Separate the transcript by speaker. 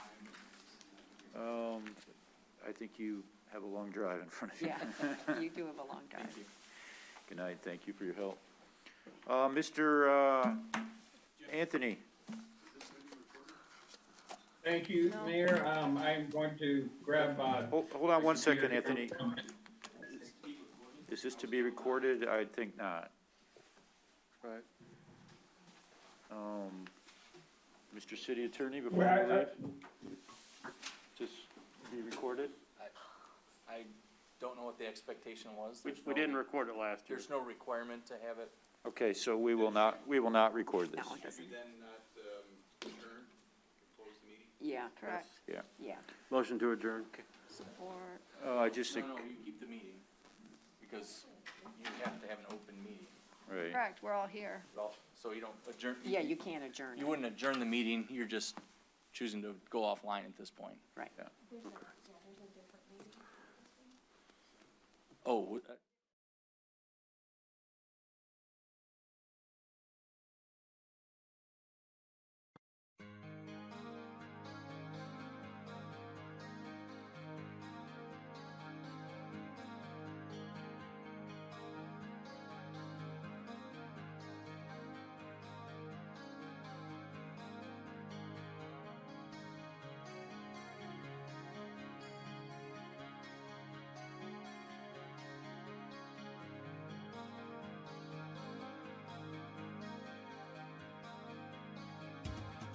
Speaker 1: Um, think you have a long drive in front of you.
Speaker 2: Yeah, you do have a long drive.
Speaker 1: Good night, thank you for your help. Uh, Mr. uh, Anthony,
Speaker 3: Thank you,
Speaker 2: No.
Speaker 3: Mayor. Um, I'm going to grab, uh.
Speaker 1: hold, hold on one
Speaker 3: my
Speaker 1: second,
Speaker 3: computer.
Speaker 1: Anthony. Is this to be recorded? I think not.
Speaker 4: Right.
Speaker 1: Um, Mr. City Attorney, before
Speaker 3: Well, I-
Speaker 1: you
Speaker 3: I-
Speaker 1: leave, just be recorded?
Speaker 5: I don't know what the expectation was.
Speaker 4: We,
Speaker 5: There's
Speaker 4: we
Speaker 5: no-
Speaker 4: didn't record it last year.
Speaker 5: There's no requirement to have it.
Speaker 1: Okay, so we will not, we will not record this.
Speaker 2: No, it doesn't.
Speaker 6: then not um, adjourn, close the meeting?
Speaker 2: Yeah. Correct.
Speaker 1: Yeah.
Speaker 2: Yeah.
Speaker 4: Motion to adjourn.
Speaker 2: Support.
Speaker 1: Uh, I just think,
Speaker 5: No, no, you keep the meeting, because you have to have an open meeting.
Speaker 1: right.
Speaker 7: Correct, we're all here.
Speaker 5: Well, So you don't adjourn.
Speaker 2: Yeah, you can't adjourn.
Speaker 5: You wouldn't adjourn the meeting, you're just choosing to go offline at this point.
Speaker 2: Right.
Speaker 5: Oh, would-